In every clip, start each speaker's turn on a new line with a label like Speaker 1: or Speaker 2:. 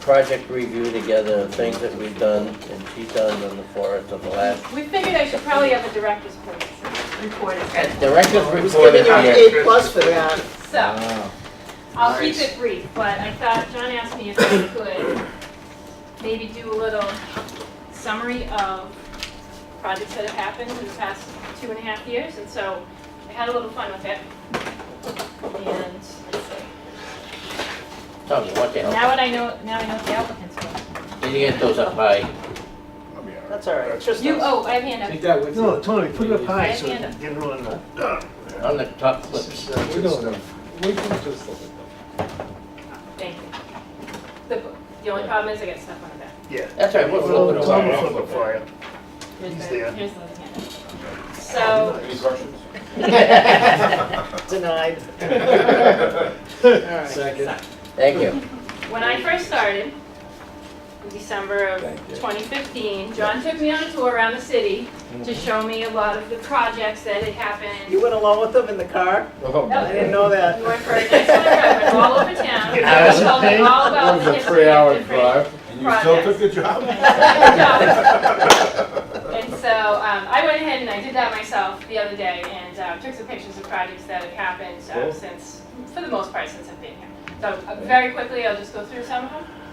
Speaker 1: project review together, of things that we've done and she's done on the forest of the last.
Speaker 2: We figured I should probably have a director's report- report. instead.
Speaker 1: Director's
Speaker 3: I was
Speaker 1: report
Speaker 3: giving
Speaker 1: is
Speaker 3: you an
Speaker 1: here.
Speaker 3: A plus for that.
Speaker 2: So,
Speaker 1: Wow.
Speaker 2: I'll keep it brief, but I thought, John asked me if I could maybe do a little summary of projects that have happened in the past two and a half years, and so I had a little fun with it. And let's see.
Speaker 1: Tell me, what the hell,
Speaker 2: now what I know, now I know what the applicants were.
Speaker 1: did you get those up high?
Speaker 3: That's all right, it's just
Speaker 2: You,
Speaker 3: us.
Speaker 2: oh, I have hand
Speaker 4: Take
Speaker 2: up.
Speaker 4: that with you.
Speaker 5: No, Tony, put it up high so we
Speaker 2: Hand
Speaker 5: can
Speaker 2: up.
Speaker 5: get it on the.
Speaker 1: On the top
Speaker 5: This
Speaker 1: clip.
Speaker 5: is, uh,
Speaker 4: We
Speaker 5: good
Speaker 4: don't-
Speaker 5: stuff.
Speaker 4: we can just look at them.
Speaker 2: Thank you. The, bo- the only problem is I get stuff on the back.
Speaker 5: Yeah.
Speaker 1: That's all right, we'll
Speaker 5: Well,
Speaker 1: flip it
Speaker 5: it's on the
Speaker 1: over.
Speaker 5: flip for you.
Speaker 2: Here's
Speaker 5: He's
Speaker 2: the-
Speaker 5: there.
Speaker 2: Here's the other hand up. So,
Speaker 6: Any questions?
Speaker 3: Denied. All right.
Speaker 4: Second.
Speaker 1: Thank you.
Speaker 2: When I first started, in December of 2015, John took me on a tour around the city to show me a lot of the projects that had
Speaker 3: You
Speaker 2: happened.
Speaker 3: went along with them in the car? I didn't know
Speaker 2: We
Speaker 3: that.
Speaker 2: went for a nice little drive, went all over town.
Speaker 5: Get
Speaker 1: out of
Speaker 2: He told me
Speaker 5: Spain.
Speaker 2: all about the history of different.
Speaker 6: And you still took the job?
Speaker 2: And so um, I went ahead and I did that myself the other day and uh, took some pictures of projects that have happened uh,
Speaker 6: Cool.
Speaker 2: since, for the most part, since I've been here. So uh, very quickly, I'll just go through some of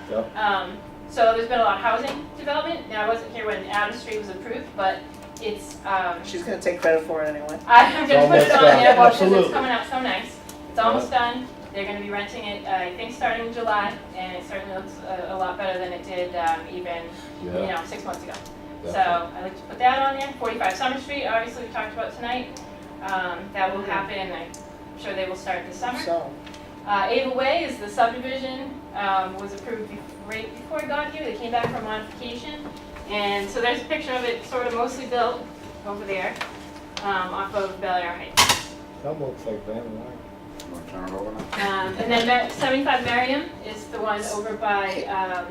Speaker 2: them. Um, so there's been a lot of housing development. Now I wasn't here when Adams Street was approved, but it's um,
Speaker 3: She's gonna take credit for it anyway.
Speaker 2: I- I'm gonna put
Speaker 1: It's
Speaker 2: it on
Speaker 1: almost done.
Speaker 2: there because it's
Speaker 5: Absolutely.
Speaker 2: coming out so nice. It's almost done. They're gonna be renting it, uh, I think, starting in July, and it certainly looks uh, a, a lot better than it did um, even you know six months ago. So I like to put that on there. 45 Summer Street, obviously we talked about tonight. Um, that will happen. I'm sure they will start this summer.
Speaker 3: So,
Speaker 2: Uh, Ava Way is the subdivision, um, was approved be- right before I got here, they came back for modification. And so there's a picture of it sort of mostly built over there, um, off of Bel Air Heights.
Speaker 4: That looks like Van Wyck.
Speaker 6: Wanna Turn it over now?
Speaker 2: Um, and then Ma- seventy-five Merriam is the one over by, um,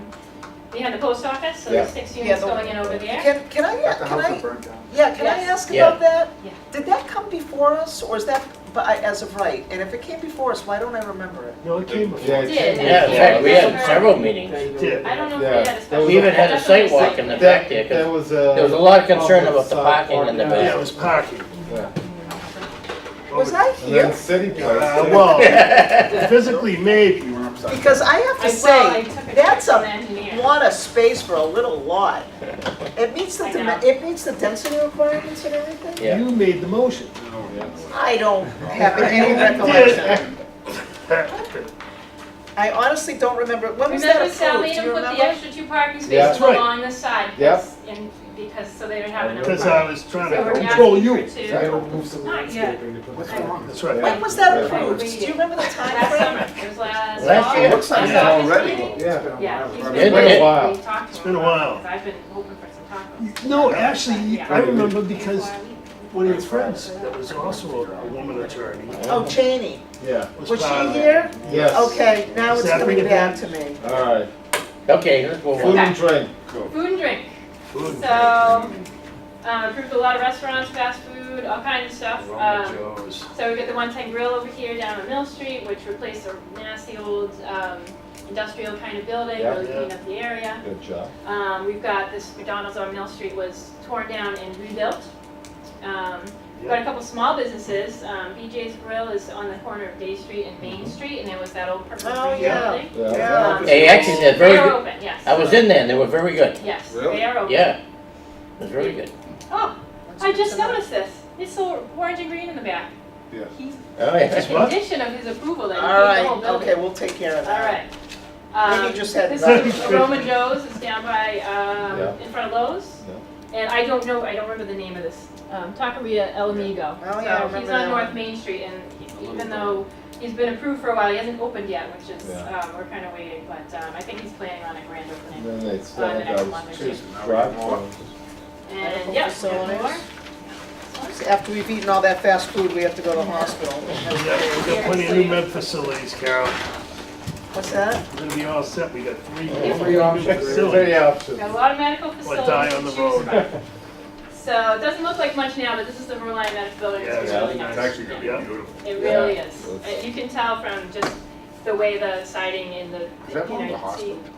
Speaker 2: behind the post office, so there's six
Speaker 3: Yeah,
Speaker 2: units
Speaker 3: the-
Speaker 2: going in over there.
Speaker 3: can, can I,
Speaker 6: That's the
Speaker 3: can
Speaker 6: house that
Speaker 3: I,
Speaker 6: burned down.
Speaker 3: yeah, can I
Speaker 2: Yes.
Speaker 3: ask
Speaker 1: Yeah.
Speaker 3: about that?
Speaker 2: Yeah.
Speaker 3: Did that come before us, or is that by- as of right? And if it came before us, why don't I remember it?
Speaker 5: No, it came before.
Speaker 2: It did. and
Speaker 1: Yeah, in fact, we had several meetings.
Speaker 4: Thank
Speaker 5: Yeah.
Speaker 4: you.
Speaker 2: I don't know
Speaker 7: Yeah.
Speaker 2: if they had a special.
Speaker 1: We even had a
Speaker 2: definitely
Speaker 1: sidewalk in the back there, 'cause
Speaker 7: That was a.
Speaker 1: there was a lot of concern about the parking in the
Speaker 5: Yeah, it
Speaker 1: back.
Speaker 5: was parking.
Speaker 7: Yeah.
Speaker 3: Was I
Speaker 7: And then
Speaker 3: here?
Speaker 7: city
Speaker 5: Uh,
Speaker 7: place.
Speaker 5: Well, physically maybe.
Speaker 6: You went upside down.
Speaker 3: Because I have
Speaker 2: I,
Speaker 3: to
Speaker 2: well, I
Speaker 3: say,
Speaker 2: took a trip
Speaker 3: that's
Speaker 2: from the
Speaker 3: a
Speaker 2: engineer.
Speaker 3: lot of space for a little lot. It meets the,
Speaker 2: I
Speaker 3: dimen-
Speaker 2: know.
Speaker 3: it meets the density requirements and everything?
Speaker 1: Yeah.
Speaker 4: You made the motion.
Speaker 6: No, yeah, no way.
Speaker 3: I don't have any recollection.
Speaker 5: Did.
Speaker 3: I honestly don't remember, when was that
Speaker 2: Remember
Speaker 3: approved,
Speaker 2: Sally
Speaker 3: do
Speaker 2: and
Speaker 3: you
Speaker 2: put
Speaker 3: remember?
Speaker 2: the extra two parking
Speaker 7: Yeah.
Speaker 2: spaces
Speaker 5: That's right.
Speaker 2: along the side?
Speaker 7: Yep.
Speaker 2: because- And because, so they don't have enough.
Speaker 5: Because I
Speaker 2: parking.
Speaker 5: was trying
Speaker 2: So we're
Speaker 5: to control
Speaker 2: asking
Speaker 5: you.
Speaker 2: for two.
Speaker 7: Sorry.
Speaker 2: Not yet.
Speaker 6: What's wrong?
Speaker 5: That's right.
Speaker 3: When was that
Speaker 7: Yeah.
Speaker 3: approved? Do you remember the
Speaker 2: Last
Speaker 3: timeframe?
Speaker 2: summer, it was last.
Speaker 1: Last
Speaker 2: fall.
Speaker 1: year.
Speaker 2: Last
Speaker 3: Looks like
Speaker 6: it
Speaker 2: August
Speaker 6: already.
Speaker 2: meeting.
Speaker 7: Yeah.
Speaker 2: Yeah, he's
Speaker 1: It's
Speaker 2: been.
Speaker 1: been a
Speaker 7: while.
Speaker 2: We've talked to
Speaker 5: It's
Speaker 2: him
Speaker 5: been a
Speaker 2: about it,
Speaker 5: while. uh,
Speaker 2: 'cause I've been hoping for some tacos.
Speaker 4: No, actually, I remember because
Speaker 2: Why we-
Speaker 4: one of your friends that was also a a woman attorney
Speaker 3: Oh, Cheney.
Speaker 7: Yeah,
Speaker 4: was
Speaker 3: Was
Speaker 4: part
Speaker 3: she
Speaker 4: of that.
Speaker 3: here?
Speaker 7: yes.
Speaker 3: Okay, now it's
Speaker 4: Does that
Speaker 3: coming
Speaker 4: ring a
Speaker 3: back to me.
Speaker 7: All right,
Speaker 1: Okay, let's move
Speaker 7: food
Speaker 1: on.
Speaker 7: and drink.
Speaker 2: Food and drink,
Speaker 5: Food.
Speaker 2: so, um, approved a lot of restaurants, fast food, all kinds of stuff.
Speaker 5: Wrong
Speaker 2: Um,
Speaker 5: with Joe's.
Speaker 2: So we've got the One Ten Grill over here down on Mill Street, which replaced a nasty old um, industrial kind of building,
Speaker 7: Yeah.
Speaker 2: really cleaned up the area.
Speaker 7: Good job.
Speaker 2: Um, We've got this McDonald's on Mill Street was torn down and rebuilt. Um, We've got a couple small businesses, um, BJ's Grill is on the corner of Day Street and Main Street, and it was that old purple
Speaker 3: Oh,
Speaker 2: brick
Speaker 3: yeah.
Speaker 2: building.
Speaker 7: Yeah.
Speaker 2: Um,
Speaker 1: They actually did very
Speaker 2: They are
Speaker 1: good.
Speaker 2: open, yes.
Speaker 1: I was in there and they were very good.
Speaker 2: Yes,
Speaker 6: Really?
Speaker 2: they are open.
Speaker 1: Yeah. It was really good.
Speaker 2: Oh, I just noticed this, it's so orange and green in the back.
Speaker 6: Yeah.
Speaker 2: He's
Speaker 1: Oh, yeah.
Speaker 2: The
Speaker 4: That's what?
Speaker 2: condition of his approval that he
Speaker 3: All
Speaker 2: paid the
Speaker 3: right,
Speaker 2: whole building.
Speaker 3: okay, we'll take care of
Speaker 2: All
Speaker 3: that.
Speaker 2: right. Um,
Speaker 3: Maybe just had
Speaker 2: This
Speaker 3: that.
Speaker 2: is Aroma Joe's, it's down by, um,
Speaker 7: Yeah.
Speaker 2: in front of Lowe's. And I don't know, I don't remember the name of this, um, Taqueria El Amigo.
Speaker 3: Oh, yeah, I
Speaker 2: So
Speaker 3: remember
Speaker 2: he's
Speaker 3: that
Speaker 2: on North
Speaker 3: one.
Speaker 2: Main Street and he-
Speaker 6: A little
Speaker 2: even
Speaker 6: bit.
Speaker 2: though he's been approved for a while, he hasn't opened yet, which is,
Speaker 7: Yeah.
Speaker 2: um, we're kind of waiting, but, um, I think he's planning on a grand
Speaker 7: And
Speaker 2: opening.
Speaker 7: then
Speaker 2: Oh,
Speaker 7: they
Speaker 2: and
Speaker 7: started
Speaker 2: then I
Speaker 7: those
Speaker 2: want to-
Speaker 7: two
Speaker 6: Now we
Speaker 7: drive
Speaker 6: have more.
Speaker 2: And, yeah,
Speaker 3: Wonderful
Speaker 2: we have
Speaker 3: facilities.
Speaker 2: more.
Speaker 3: See, After we've eaten all that fast food, we have to go to the hospital.
Speaker 5: Yeah, we've got plenty of new med facilities, Carol.
Speaker 3: What's that?
Speaker 5: We're gonna be all set. We got three.
Speaker 7: Three options, three
Speaker 5: Facilities.
Speaker 7: options.
Speaker 2: Got a lot of medical
Speaker 5: Or
Speaker 2: facilities
Speaker 5: die on the
Speaker 2: to choose
Speaker 5: road.
Speaker 2: from. So it doesn't look like much now, but this is the Vermont Medical Building,
Speaker 5: Yeah,
Speaker 2: it's
Speaker 7: yeah,
Speaker 2: really nice.
Speaker 6: It's actually gonna
Speaker 5: Yeah.
Speaker 6: be beautiful.
Speaker 2: It
Speaker 7: Yeah.
Speaker 2: really is.
Speaker 7: It's-
Speaker 2: Uh, You can tell from just the way the siding in the, you
Speaker 6: Is that one of the
Speaker 2: know, you can see.
Speaker 6: hospitals?